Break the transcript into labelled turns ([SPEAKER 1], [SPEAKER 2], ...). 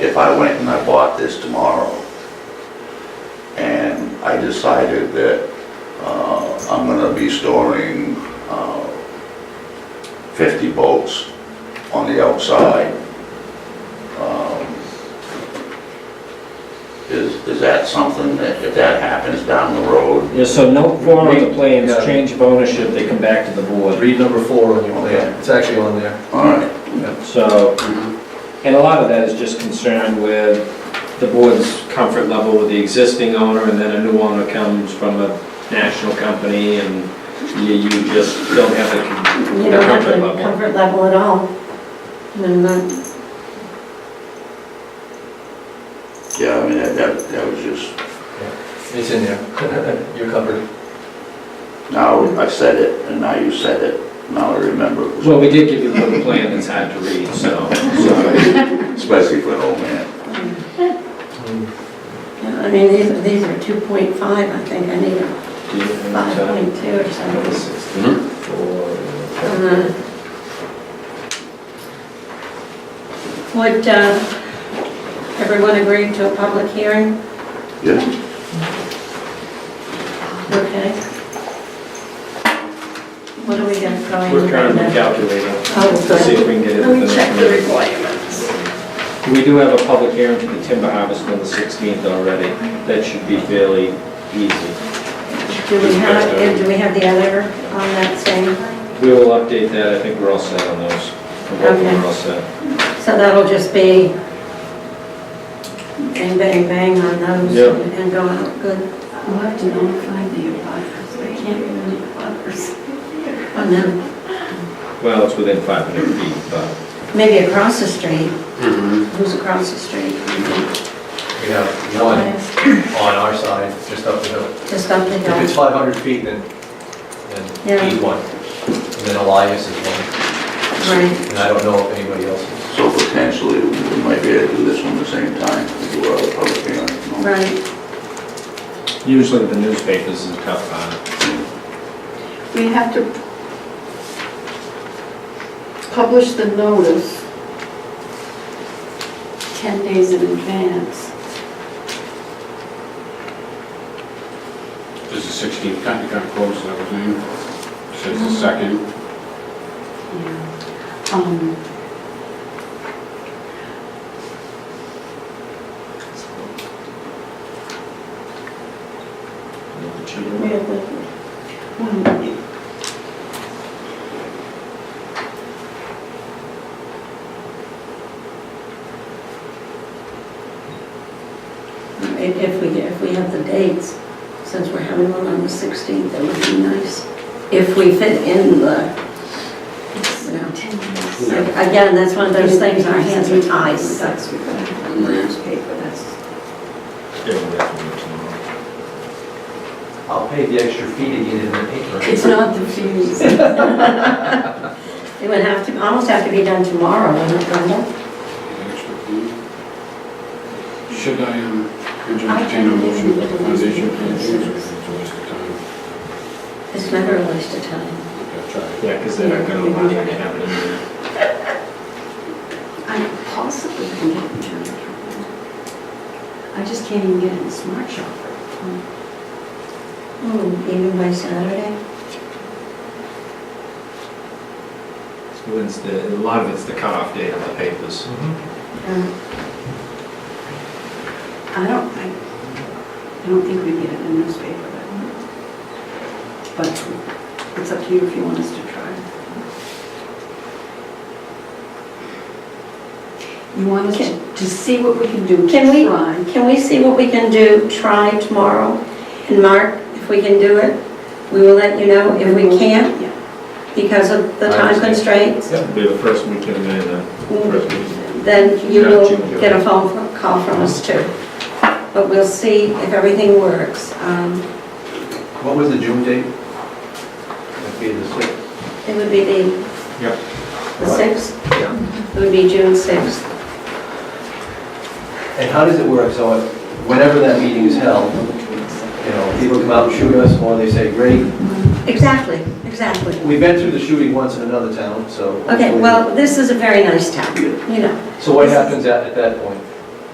[SPEAKER 1] If I went and I bought this tomorrow, and I decided that uh, I'm gonna be storing uh, 50 bolts on the outside, um, is, is that something that, if that happens down the road?
[SPEAKER 2] Yeah, so no form of the plans,
[SPEAKER 3] Yeah.
[SPEAKER 2] change of ownership, they come back to the board.
[SPEAKER 3] Read number four on your
[SPEAKER 1] Okay.
[SPEAKER 3] plan, it's actually on there.
[SPEAKER 1] All right,
[SPEAKER 2] So, and a lot of that is just concerned with the board's comfort level with the existing owner, and then a new owner comes from a national company, and you, you just don't have the
[SPEAKER 4] You
[SPEAKER 2] the
[SPEAKER 4] don't have
[SPEAKER 2] comfort
[SPEAKER 4] the
[SPEAKER 2] level.
[SPEAKER 4] comfort level at all. And then,
[SPEAKER 1] yeah, I mean, that, that that was just,
[SPEAKER 3] It's in there. You're covered.
[SPEAKER 1] now I said it, and now you said it, now I remember. it was
[SPEAKER 2] Well, we did give you a little plan that's hard to read, so.
[SPEAKER 1] Especially for an old man.
[SPEAKER 4] I mean, these, these are 2.5, I think, I need a
[SPEAKER 2] do you have time?
[SPEAKER 4] 5.2 or
[SPEAKER 2] Number
[SPEAKER 4] something.
[SPEAKER 2] 64.
[SPEAKER 4] Uh, Would uh, everyone agree to a public hearing?
[SPEAKER 1] Yeah.
[SPEAKER 4] Okay. What are we going to try and...
[SPEAKER 2] We're currently calculating,
[SPEAKER 4] Oh,
[SPEAKER 2] to see if we can get it.
[SPEAKER 4] Let me
[SPEAKER 2] within the
[SPEAKER 4] check the
[SPEAKER 2] community.
[SPEAKER 4] requirements.
[SPEAKER 2] We do have a public hearing for the timber harvest on the 16th already. That should be fairly easy.
[SPEAKER 4] Do we have, and do we have the other on that same?
[SPEAKER 2] We will update that. I think we're all set on those. I'm hoping We're all set.
[SPEAKER 4] So that'll just be bang, bang, bang on those
[SPEAKER 2] Yeah.
[SPEAKER 4] and and go out good
[SPEAKER 5] We'll have to notify the abutters, we can't really abutters.
[SPEAKER 4] on them.
[SPEAKER 2] Well, it's within 500 feet, but
[SPEAKER 4] Maybe across the street.
[SPEAKER 3] Mm-hmm.
[SPEAKER 4] Who's across the street?
[SPEAKER 3] We have one on our side, just up the hill.
[SPEAKER 4] Just up the
[SPEAKER 3] If it's
[SPEAKER 4] hill.
[SPEAKER 3] 500 feet, then,
[SPEAKER 4] Yeah.
[SPEAKER 3] then he's one. And then Elias is one,
[SPEAKER 4] Right.
[SPEAKER 3] and I don't know if anybody else is.
[SPEAKER 1] So potentially, we might be able to do this one the same time, we do our other public hearing. no?
[SPEAKER 4] Right.
[SPEAKER 2] usually the newspapers is a tough part.
[SPEAKER 5] We have to publish the notice 10 days in advance.
[SPEAKER 6] Does the 16th kind of come close and everything? Says the second,
[SPEAKER 5] Um, well, it-
[SPEAKER 4] If if we, if we have the dates, since we're having one on the 16th, that would be nice. If we fit in the,
[SPEAKER 5] it's
[SPEAKER 4] you know,
[SPEAKER 5] 10 days.
[SPEAKER 4] again, that's one of those things, our hands are tied. That's
[SPEAKER 5] That's-
[SPEAKER 4] in the newspaper, that's,
[SPEAKER 2] Yeah, we'll have to do it tomorrow.
[SPEAKER 3] I'll pay the extra fee to get in the paper.
[SPEAKER 5] It's not the fees.
[SPEAKER 4] it would have to, almost have to be done tomorrow, wouldn't it, Brenda?
[SPEAKER 6] extra fee. Should I, um, could you entertain a motion for the foundation? plan? It's a waste of time.
[SPEAKER 4] It's never a waste of time.
[SPEAKER 6] Gotta try it.
[SPEAKER 2] Yeah, because they're not going to allow you to have it in there.
[SPEAKER 5] I possibly can get in town. I just can't even get in the smart shop.
[SPEAKER 4] Hmm, Even by Saturday?
[SPEAKER 2] It's the, a lot of it's the cutoff date on the papers.
[SPEAKER 4] Uh,
[SPEAKER 5] Um, I don't, I, I don't think we get it in the newspaper, but, but it's up to you if you want us to try. You want us to, to see what we can do, to
[SPEAKER 4] Can we-
[SPEAKER 5] try.
[SPEAKER 4] Can we see what we can do, try tomorrow? And Mark, if we can do it, we will let you know. If we can't,
[SPEAKER 5] Yeah.
[SPEAKER 4] because of the
[SPEAKER 3] I
[SPEAKER 4] time
[SPEAKER 3] understand.
[SPEAKER 4] constraints,
[SPEAKER 3] Yep.
[SPEAKER 2] Be the first weekend in, uh, first weekend.
[SPEAKER 4] then you
[SPEAKER 2] Yeah,
[SPEAKER 4] will
[SPEAKER 2] June, July.
[SPEAKER 4] get a phone fo- call from us too. But we'll see if everything works. Um,
[SPEAKER 3] What was the June date? That'd be the sixth.
[SPEAKER 4] It would be the...
[SPEAKER 2] Yep.
[SPEAKER 4] The 6th?
[SPEAKER 3] Yeah.
[SPEAKER 4] It would be June 6th.
[SPEAKER 3] And how does it work? So if- whenever that meeting is held, you know, people come out and shoot us, or they say, great,
[SPEAKER 4] Exactly, exactly.
[SPEAKER 3] we've been through the shooting once in another town, so.
[SPEAKER 4] Okay,
[SPEAKER 3] hopefully-
[SPEAKER 4] well, this is a very nice town, you know.
[SPEAKER 3] So what happens at, at that point?